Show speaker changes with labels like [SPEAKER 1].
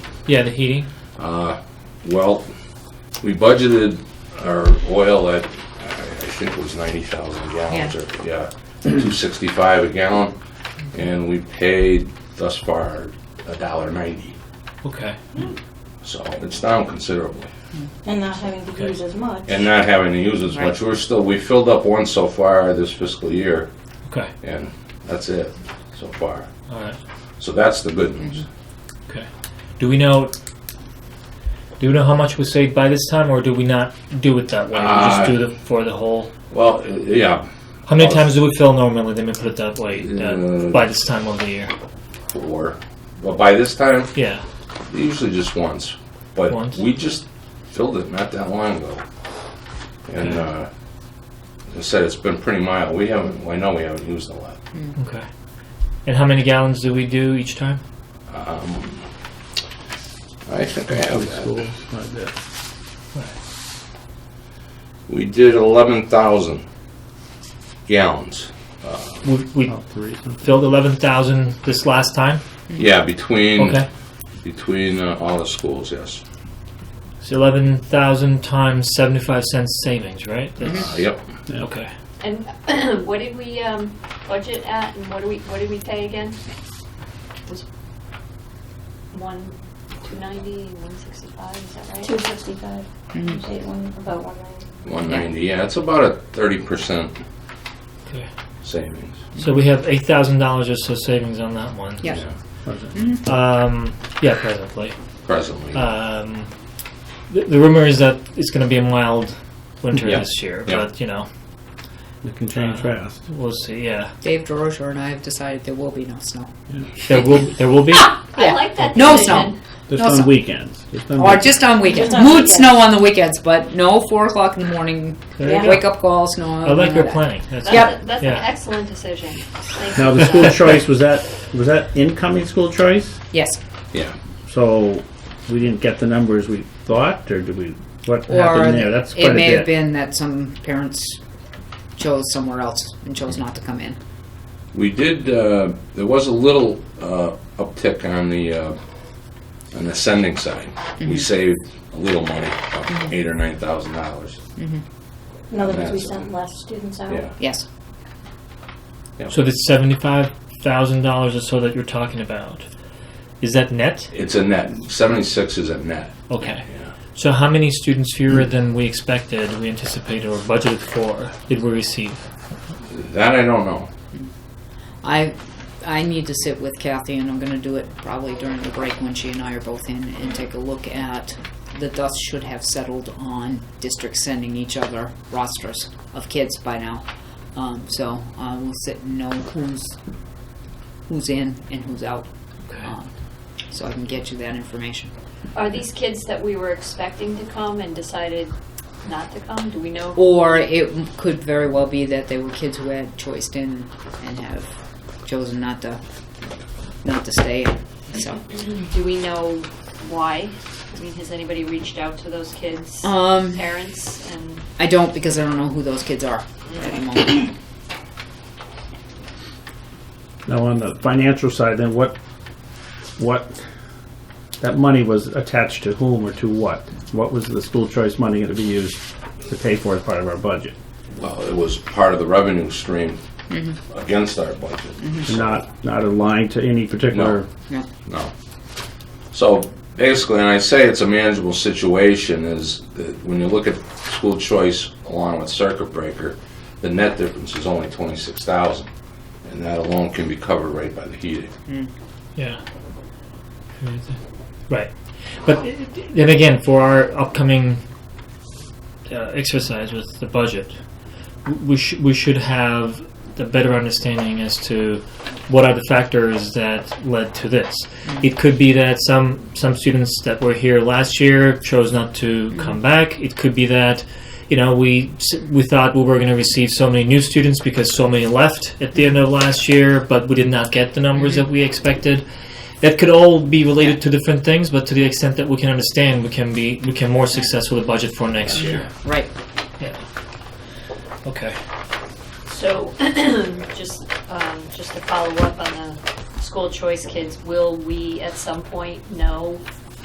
[SPEAKER 1] Yeah, the heating.
[SPEAKER 2] Uh, Well, we budgeted our oil at, I I think it was 90,000 gallons, or, yeah, 265 a gallon, and we paid thus far a dollar ninety.
[SPEAKER 1] Okay.
[SPEAKER 2] so it's down considerably.
[SPEAKER 3] And not having to
[SPEAKER 1] Okay.
[SPEAKER 3] use as much.
[SPEAKER 2] And not having to use as much, we're still, we filled up one so far this fiscal year,
[SPEAKER 1] Okay.
[SPEAKER 2] and that's it so far.
[SPEAKER 1] All right.
[SPEAKER 2] So that's the good news.
[SPEAKER 1] Okay. Do we know? Do we know how much was saved by this time, or do we not do it that way? we
[SPEAKER 2] Uh,
[SPEAKER 1] just do the for the whole.
[SPEAKER 2] Well, yeah,
[SPEAKER 1] How many
[SPEAKER 2] uh,
[SPEAKER 1] times do we fill normally? Then we put it that way uh,
[SPEAKER 2] Uh,
[SPEAKER 1] by this time of the year.
[SPEAKER 2] four, but by this time,
[SPEAKER 1] Yeah.
[SPEAKER 2] Usually just once, but
[SPEAKER 1] Once?
[SPEAKER 2] we just filled it not that long ago. And
[SPEAKER 1] Okay.
[SPEAKER 2] uh, as I said, it's been pretty mild. We haven't, well, I know we haven't used a lot.
[SPEAKER 1] Okay. And how many gallons do we do each time?
[SPEAKER 2] Um, I think I have that. We did 11,000 gallons.
[SPEAKER 1] We, we
[SPEAKER 4] Oh.
[SPEAKER 1] filled eleven thousand this last time.
[SPEAKER 2] Yeah, between
[SPEAKER 1] Hmm. Okay.
[SPEAKER 2] between uh, all the schools, yes.
[SPEAKER 1] So eleven thousand times seventy-five cents savings, right? That's,
[SPEAKER 2] Uh, yep.
[SPEAKER 1] Okay.
[SPEAKER 5] And what did we um, budget at, and what do we, what did we pay again? Was one, two ninety, one sixty-five, is that right?
[SPEAKER 3] Two sixty-five, about one ninety.
[SPEAKER 2] 190. Yeah, it's about a 30%
[SPEAKER 1] Okay.
[SPEAKER 2] savings.
[SPEAKER 1] So we have eight thousand dollars or so savings on that one.
[SPEAKER 6] Yeah. Mm-hmm.
[SPEAKER 1] Um, yeah, presently.
[SPEAKER 2] Presently.
[SPEAKER 1] Um, the, the rumor is that it's going to be a mild winter
[SPEAKER 2] Yeah.
[SPEAKER 1] this year,
[SPEAKER 2] Yeah.
[SPEAKER 1] but you know,
[SPEAKER 4] It can change
[SPEAKER 1] Uh,
[SPEAKER 4] fast.
[SPEAKER 1] we'll see. Yeah,
[SPEAKER 6] Dave DeRocher and I have decided there will be no snow.
[SPEAKER 1] there will there will be.
[SPEAKER 6] Ah!
[SPEAKER 5] I like that
[SPEAKER 6] No
[SPEAKER 5] decision.
[SPEAKER 4] Just
[SPEAKER 6] No, so-
[SPEAKER 4] on weekends. Just on
[SPEAKER 6] Or
[SPEAKER 4] weekends.
[SPEAKER 6] just on weekends.
[SPEAKER 3] Just on
[SPEAKER 6] Mood
[SPEAKER 3] weekends.
[SPEAKER 6] snow on the weekends, but no four o'clock in the morning,
[SPEAKER 1] There you go.
[SPEAKER 6] wake up call, snow.
[SPEAKER 1] I like your planning. That's
[SPEAKER 5] That's
[SPEAKER 6] Yep.
[SPEAKER 5] a- That's an
[SPEAKER 1] Yeah.
[SPEAKER 5] excellent decision. Thank
[SPEAKER 4] Now
[SPEAKER 5] you
[SPEAKER 4] the
[SPEAKER 5] for
[SPEAKER 4] school
[SPEAKER 5] that.
[SPEAKER 4] choice was that was that incoming school choice?
[SPEAKER 6] Yes.
[SPEAKER 2] yeah.
[SPEAKER 4] So we didn't get the numbers we thought, or did we? What
[SPEAKER 6] Or
[SPEAKER 4] happened there? That's quite
[SPEAKER 6] it
[SPEAKER 4] a
[SPEAKER 6] may
[SPEAKER 4] bit.
[SPEAKER 6] have been that some parents chose somewhere else and chose not to come in.
[SPEAKER 2] We did, uh, there was a little uh, uptick on the, uh, on the sending side. We saved a little money, about eight or nine thousand dollars.
[SPEAKER 3] In other words, we
[SPEAKER 2] That's-
[SPEAKER 3] sent less students out.
[SPEAKER 2] Yeah,
[SPEAKER 6] Yes.
[SPEAKER 1] So the seventy-five thousand dollars or so that you're talking about is that net?
[SPEAKER 2] it's a net, seventy-six is a net.
[SPEAKER 1] Okay.
[SPEAKER 2] Yeah.
[SPEAKER 1] So how many students fewer than we expected, we anticipated, or budgeted for did we receive?
[SPEAKER 2] That I don't know.
[SPEAKER 6] I I need to sit with Kathy, and I'm going to do it probably during the break when she and I are both in, and take a look at the dust should have settled on districts sending each other rosters of kids by now. Um, so uh, we'll sit and know who's who's in and who's out, um, so I can get you that information.
[SPEAKER 5] Are these kids that we were expecting to come and decided not to come? Do we know?
[SPEAKER 6] Or it could very well be that they were kids who had choiced in and have chosen not to not to stay. So.
[SPEAKER 5] Do we know why? I mean, has anybody reached out to those kids,
[SPEAKER 6] Um,
[SPEAKER 5] parents, and?
[SPEAKER 6] I don't because I don't know who those kids are at the moment.
[SPEAKER 4] Now on the financial side, then what? What? That money was attached to whom or to what? What was the school choice money going to be used to pay for as part of our budget?
[SPEAKER 2] Well, it was part of the revenue stream against our budget.
[SPEAKER 4] Not not aligned to any particular.
[SPEAKER 2] No.
[SPEAKER 6] No.
[SPEAKER 2] No. So basically, and I say it's a manageable situation, is that when you look at school choice along with circuit breaker, the net difference is only twenty-six thousand, and that alone can be covered right by the heating.
[SPEAKER 1] Yeah. Right. But then again, for our upcoming uh, exercise with the budget, we, sh- we should have a better understanding as to what are the factors that led to this. It could be that some some students that were here last year chose not to come back. It could be that you know we s- we thought we were going to receive so many new students because so many left at the end of last year, but we did not get the numbers that we expected. That could all be related to different things, but to the extent that we can understand, we can be we can more successful the budget for next year.
[SPEAKER 6] Right.
[SPEAKER 1] Okay.
[SPEAKER 5] So, just, um, just to follow up on the school choice kids, will we at some point know